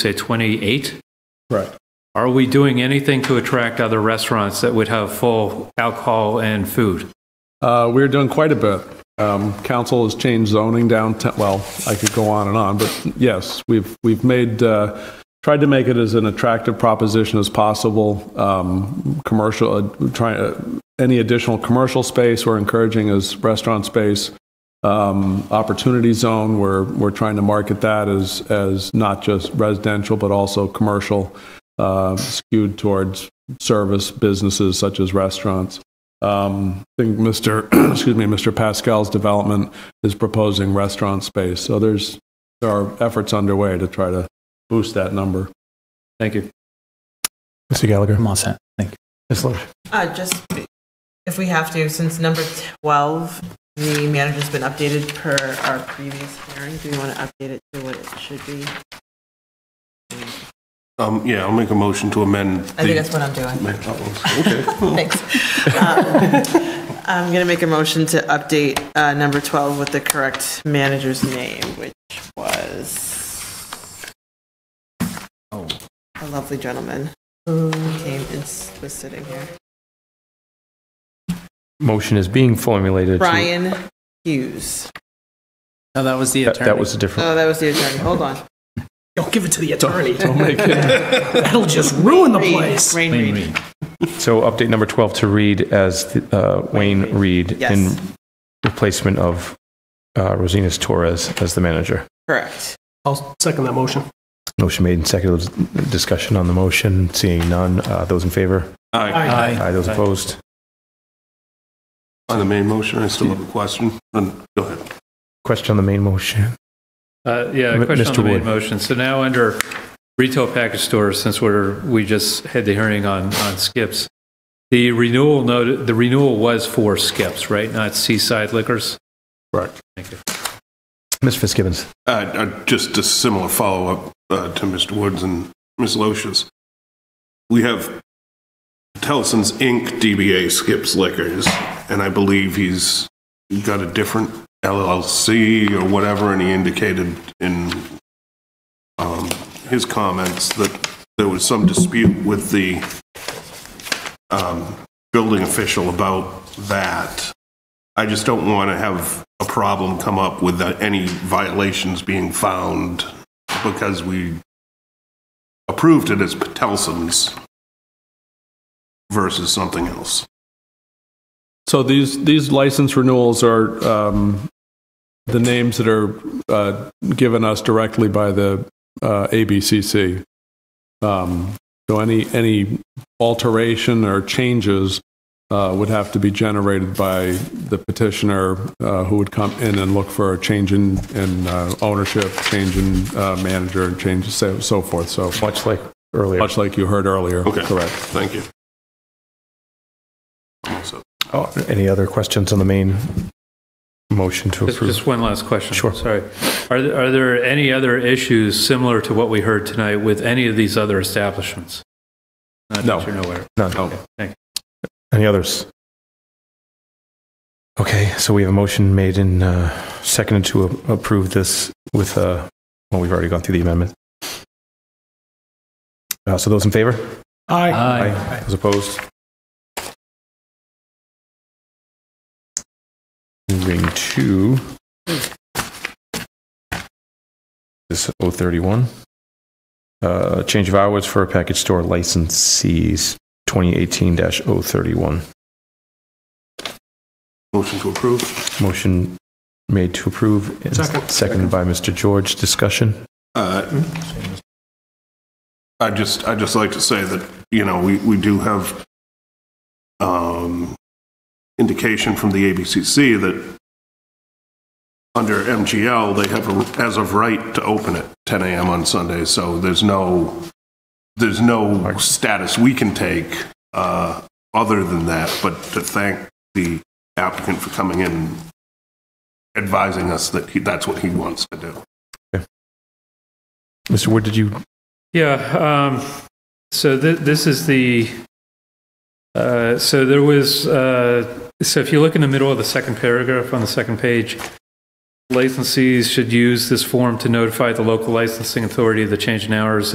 say 28. Right. Are we doing anything to attract other restaurants that would have full alcohol and food? Uh, We're doing quite a bit. Um, Council has changed zoning downtown, well, I could go on and on, but yes, we've, we've made, uh, tried to make it as an attractive proposition as possible. Um, Commercial, uh, try, uh, any additional commercial space we're encouraging is restaurant space. Um, Opportunity zone, we're, we're trying to market that as, as not just residential, but also commercial, uh, skewed towards service businesses such as restaurants. Um, I think Mr. excuse me, Mr. Pascal's development is proposing restaurant space. So there's there are efforts underway to try to boost that number. Thank you. Mr. Gallagher? I'm all set. Thank you. Ms. Loesch? Uh, just if we have to, since number 12, the manager's been updated per our previous hearing, do we want to update it to what it should be? Um, yeah, I'll make a motion to amend. I think that's what I'm doing. Okay. Thanks. Um, I'm going to make a motion to update uh, number 12 with the correct manager's name, which was Oh. a lovely gentleman who came and s- was sitting here. motion is being formulated. to- Brian Hughes. No, that was the That- attorney. That was a different, Oh, that was the attorney. Hold on. Don't give it to the attorney. Make it- That'll just ruin the Reed. place. Rain Reed. So update number 12 to read as uh, Wayne Reed in Yes. replacement of uh, Rosinas Torres as the manager. Correct. I'll second that motion. Motion made and seconded. Discussion on the motion. Seeing none. Uh, Those in favor? Aye. Aye. Those opposed? On the main motion, I still have a question. Um, Go ahead. Question on the main motion. Uh, Yeah, a M- question on Mr. the main Wood. motion. So now under retail package stores, since we're, we just had the hearing on, on skips, the renewal noted, the renewal was for skips, right? Not seaside liquors? Correct. Thank you. Mr. Fitzgibbons? Uh, uh, Just a similar follow-up uh, to Mr. Woods and Ms. Loesch's. We have Tellson's Inc., DBA Skips Liquors, and I believe he's got a different LLC or whatever, and he indicated in um, his comments that there was some dispute with the um, building official about that. I just don't want to have a problem come up with uh, any violations being found because we approved it as Patelson's versus something else. So these these license renewals are um, the names that are uh, given us directly by the uh, ABCC. Um, so any any alteration or changes uh, would have to be generated by the petitioner uh, who would come in and look for a change in, in uh, ownership, change in uh, manager, and change so, so forth. So Much like earlier. much like you heard earlier, Okay. correct? Thank you. So, Oh, Any other questions on the main motion to Just- approve? Just one last question. Sure. Sorry. Are, there- are there any other issues similar to what we heard tonight with any of these other establishments? Not No. that you're aware of. None. Okay, thank you. Any others? Okay, so we have a motion made and uh, seconded to a- approve this with, uh, well, we've already gone through the amendment. Uh, So those in favor? Aye. Aye. Those opposed? Moving to this 031. Uh, Change of hours for package store licensees, 2018-031. motion to approve. Motion made to approve. and Second. Seconded by Mr. George. Discussion? Uh, I just, I just like to say that, you know, we, we do have um, indication from the ABCC that under MGL, they have, a- as of right, to open at 10 AM on Sundays, so there's no, there's no status we can take uh, other than that, but to thank the applicant for coming in and advising us that he- that's what he wants to do. Mr. Wood, did you, Yeah, um, so th- this is the, uh, so there was, uh, so if you look in the middle of the second paragraph on the second page, licensees should use this form to notify the local licensing authority of the change in hours